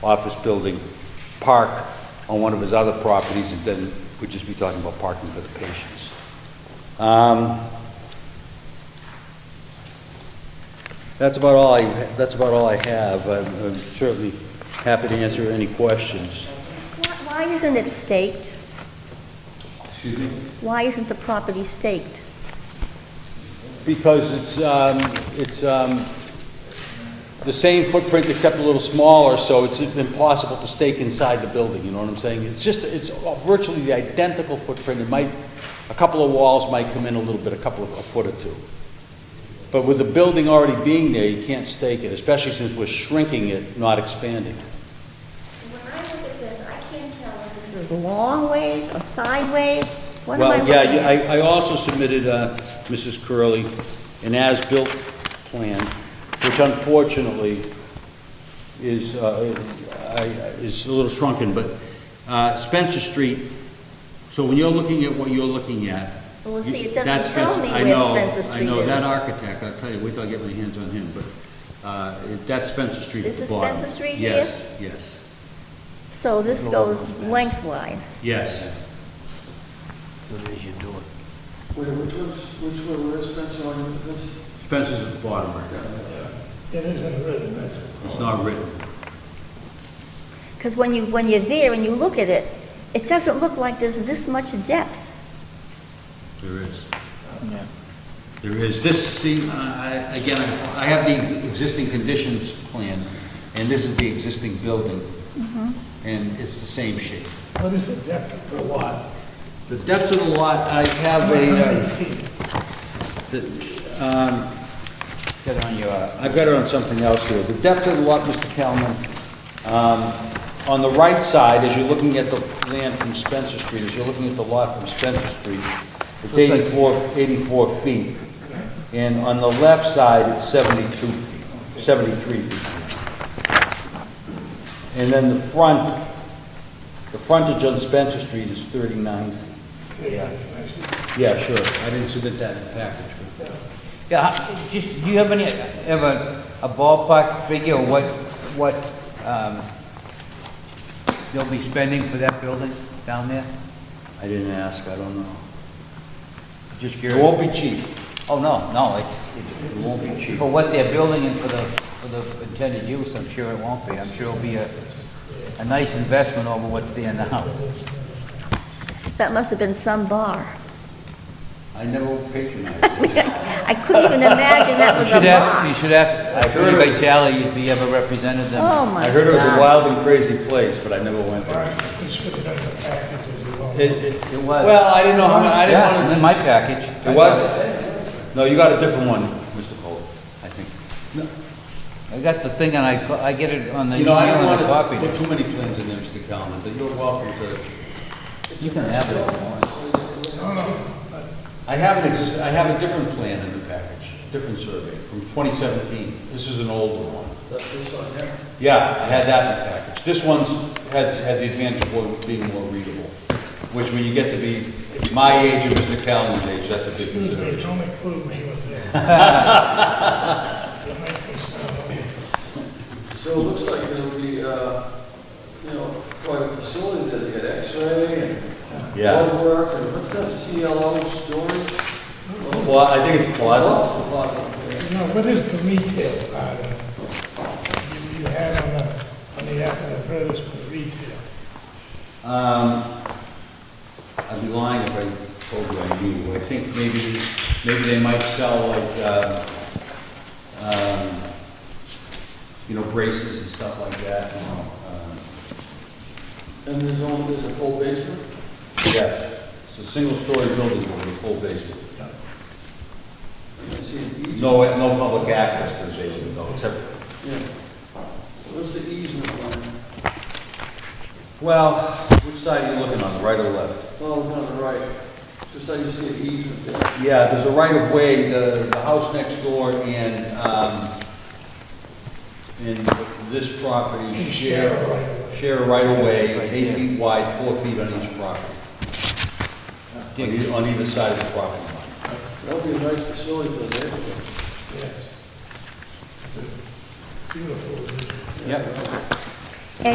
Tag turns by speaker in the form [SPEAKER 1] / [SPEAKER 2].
[SPEAKER 1] office building, park on one of his other properties, and then we'd just be talking about parking for the patients. Um, That's about all I, that's about all I have. I'm I'm certainly happy to answer any questions.
[SPEAKER 2] Why- Why isn't it staked?
[SPEAKER 1] Excuse me?
[SPEAKER 2] Why isn't the property staked?
[SPEAKER 1] Because it's, um, it's, um, the same footprint except a little smaller, so it's impossible to stake inside the building, you know what I'm saying? It's just, it's virtually the identical footprint, it might, a couple of walls might come in a little bit, a couple of, a foot or two. But with the building already being there, you can't stake it, especially since we're shrinking it, not expanding.
[SPEAKER 2] When I look at this, I can't tell if this is long ways or sideways. What am I
[SPEAKER 1] Well, yeah,
[SPEAKER 2] looking
[SPEAKER 1] yeah,
[SPEAKER 2] at?
[SPEAKER 1] I, I also submitted, uh, Mrs. Curley, an as-built plan, which unfortunately is, uh, I- I- is a little shrunken, but, uh, Spencer Street, so when you're looking at what you're looking at.
[SPEAKER 2] Well, see, it
[SPEAKER 1] you- that's
[SPEAKER 2] doesn't tell
[SPEAKER 1] Spencer-
[SPEAKER 2] me
[SPEAKER 1] I
[SPEAKER 2] where
[SPEAKER 1] know,
[SPEAKER 2] Spencer
[SPEAKER 1] I know,
[SPEAKER 2] Street
[SPEAKER 1] that
[SPEAKER 2] is.
[SPEAKER 1] architect, I'll tell you, wait till I get my hands on him, but, uh, that's Spencer Street at
[SPEAKER 2] This
[SPEAKER 1] the
[SPEAKER 2] is
[SPEAKER 1] bottom.
[SPEAKER 2] Spencer Street
[SPEAKER 1] Yes, yes,
[SPEAKER 2] So this goes lengthwise.
[SPEAKER 1] yes.
[SPEAKER 3] Wait, which one's, which one, where's Spencer on this?
[SPEAKER 1] Spencer's at the bottom right now,
[SPEAKER 4] It isn't written, that's,
[SPEAKER 1] it's not written.
[SPEAKER 2] Because when you, when you're there and you look at it, it doesn't look like there's this much depth.
[SPEAKER 1] There is. There is. This, see, uh, I- I- again, I I have the existing conditions plan, and this is the existing building. And it's the same shape.
[SPEAKER 4] what is the depth per lot?
[SPEAKER 1] The depth of the lot, I have a, uh, the, um, Got it on your, uh, I've got it on something else here. The depth of the lot, Mr. Kalman, um, on the right side, as you're looking at the land from Spencer Street, as you're looking at the lot from Spencer Street, it's 84, 84 feet. And on the left side, it's 72 feet, 73 feet. And then the front, the frontage on Spencer Street is 39. feet.
[SPEAKER 4] Yeah, I see.
[SPEAKER 1] Yeah, sure. I didn't submit that in the package, but...
[SPEAKER 5] Yeah, I- just, do you have any, ever a ballpark figure of what, what, um, they'll be spending for that building down there?
[SPEAKER 1] I didn't ask, I don't know.
[SPEAKER 5] Just
[SPEAKER 1] It
[SPEAKER 5] curious.
[SPEAKER 1] won't be cheap,
[SPEAKER 5] Oh, no, no, it's,
[SPEAKER 1] it won't be
[SPEAKER 5] it's
[SPEAKER 1] cheap.
[SPEAKER 5] for what they're building and for the, for the intended use, I'm sure it won't be. I'm sure it'll be a, a nice investment over what's there now.
[SPEAKER 2] That must have been some bar.
[SPEAKER 1] I never patronized.
[SPEAKER 2] I couldn't even imagine that
[SPEAKER 5] You
[SPEAKER 2] was a
[SPEAKER 5] should ask,
[SPEAKER 2] bar.
[SPEAKER 5] you should ask,
[SPEAKER 1] heard it
[SPEAKER 5] Attorney
[SPEAKER 1] was-
[SPEAKER 5] Vitale if he ever represented them.
[SPEAKER 2] Oh, my God.
[SPEAKER 1] I heard it was a wild and crazy place, but I never went there.
[SPEAKER 4] This is figured out in the package as well.
[SPEAKER 1] It, it,
[SPEAKER 5] It was.
[SPEAKER 1] well, I didn't know how, mu- I didn't
[SPEAKER 5] Yeah,
[SPEAKER 1] want
[SPEAKER 5] in my package.
[SPEAKER 1] to, it was? No, you got a different one, Mr. Cole, I think.
[SPEAKER 5] I got the thing and I, I get it on the
[SPEAKER 1] You
[SPEAKER 5] email
[SPEAKER 1] know, I don't
[SPEAKER 5] and the
[SPEAKER 1] want to
[SPEAKER 5] copy.
[SPEAKER 1] put too many plans in there, Mr. Calman, but you're welcome to.
[SPEAKER 5] You can have it if you want.
[SPEAKER 1] I have an exist, I have a different plan in the package, different survey from 2017. This is an older one.
[SPEAKER 3] This one, yeah.
[SPEAKER 1] Yeah, I had that in the package. This one's had, had the advantage of more- being more readable, which when you get to be my age and Mr. Calvin's age, that's a big
[SPEAKER 4] Excuse me,
[SPEAKER 1] consideration.
[SPEAKER 4] don't include me with that. You make me sound like a
[SPEAKER 3] So it looks like it'll be, uh, you know, quite a facility that you get x-ray and
[SPEAKER 1] Yeah.
[SPEAKER 3] blood work, and what's that CLO storage?
[SPEAKER 1] Well, Oh, I think it's plausible.
[SPEAKER 3] Lots of blood, yeah.
[SPEAKER 4] You know, what is the retail part of it? You- You had on the, on the advertisement, retail.
[SPEAKER 1] Um, I'd be lying if I told you I knew. I think maybe, maybe they might sell like, uh, um, you know, braces and stuff like that, you know. um,
[SPEAKER 3] And there's only, there's a full basement?
[SPEAKER 1] Yes, it's a single-story building with a full basement.
[SPEAKER 3] I see an easement.
[SPEAKER 1] No, no public access to the basement though, except
[SPEAKER 3] Yeah. What's the easement line?
[SPEAKER 1] Well, which side are you looking on, the right or left?
[SPEAKER 3] Well, one Oh, on the right, just like you see an easement there.
[SPEAKER 1] Yeah, there's a right of way, the, the house next door and, um, and this property share, share a right of way, it's eight feet wide, four feet on each property. On either, on either side of the property line.
[SPEAKER 3] That'll be a nice facility for the neighborhood.
[SPEAKER 4] Yes. Beautiful.
[SPEAKER 1] Yep.